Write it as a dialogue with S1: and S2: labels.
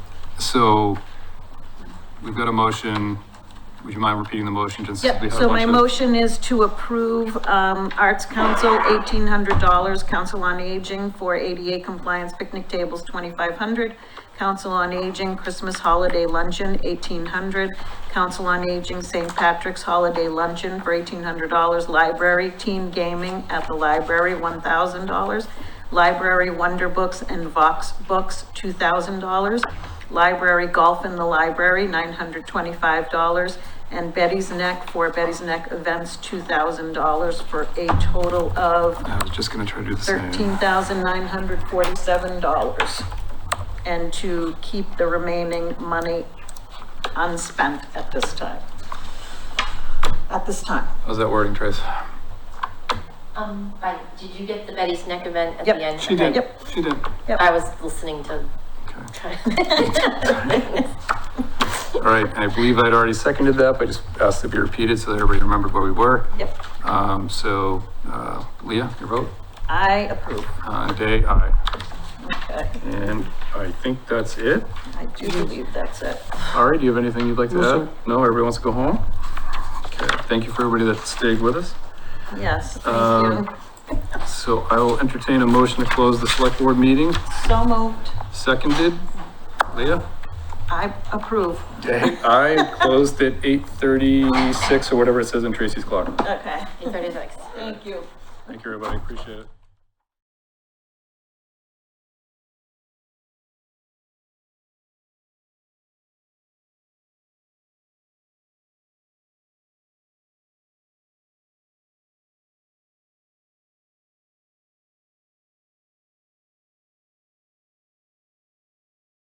S1: So we've got a motion. Would you mind repeating the motion? since we
S2: Yep,
S1: had a
S2: so my
S1: bunch of-
S2: motion is to approve, um, Arts Council, eighteen hundred dollars, Council on Aging for ADA compliance picnic tables, twenty-five hundred, Council on Aging Christmas Holiday Luncheon, eighteen hundred, Council on Aging St. Patrick's Holiday Luncheon for eighteen hundred dollars, Library Teen Gaming at the Library, one thousand dollars, Library Wonder Books and Vox Books, two thousand dollars. Library Golf in the Library, nine hundred twenty-five dollars. And Betty's Neck for Betty's Neck Events, two thousand dollars for a total of
S1: I was just gonna try to do the
S2: thirteen
S1: same.
S2: thousand nine hundred forty-seven dollars. And to keep the remaining money unspent at this time. At this time.
S1: How's that wording, Trace?
S3: Um, by, did you get the Betty's Neck event at
S2: Yep,
S3: the end?
S1: She did,
S2: Yep.
S1: she did.
S3: I was listening to.
S1: All right, and I believe I'd already seconded that, but I just asked it be repeated so that everybody remembered where we were.
S2: Yep.
S1: Um, so, uh, Leah, your vote?
S2: I approve.
S1: Uh, Day, aye.
S2: Okay,
S1: And I think that's it.
S2: I do believe that's it.
S1: All right, do you have anything you'd like to
S4: No,
S1: add? No, everybody wants to go home? Okay, thank you for everybody that stayed with us.
S2: Yes, thank
S1: Um,
S2: you.
S1: So I will entertain a motion to close the select board meeting.
S2: So moved.
S1: Seconded, Leah?
S2: I approve.
S1: Day. I closed at eight thirty-six or whatever it says in Tracy's clock.
S2: Okay.
S3: Eight thirty-six.
S2: Thank you.
S1: Thank you, everybody, appreciate it.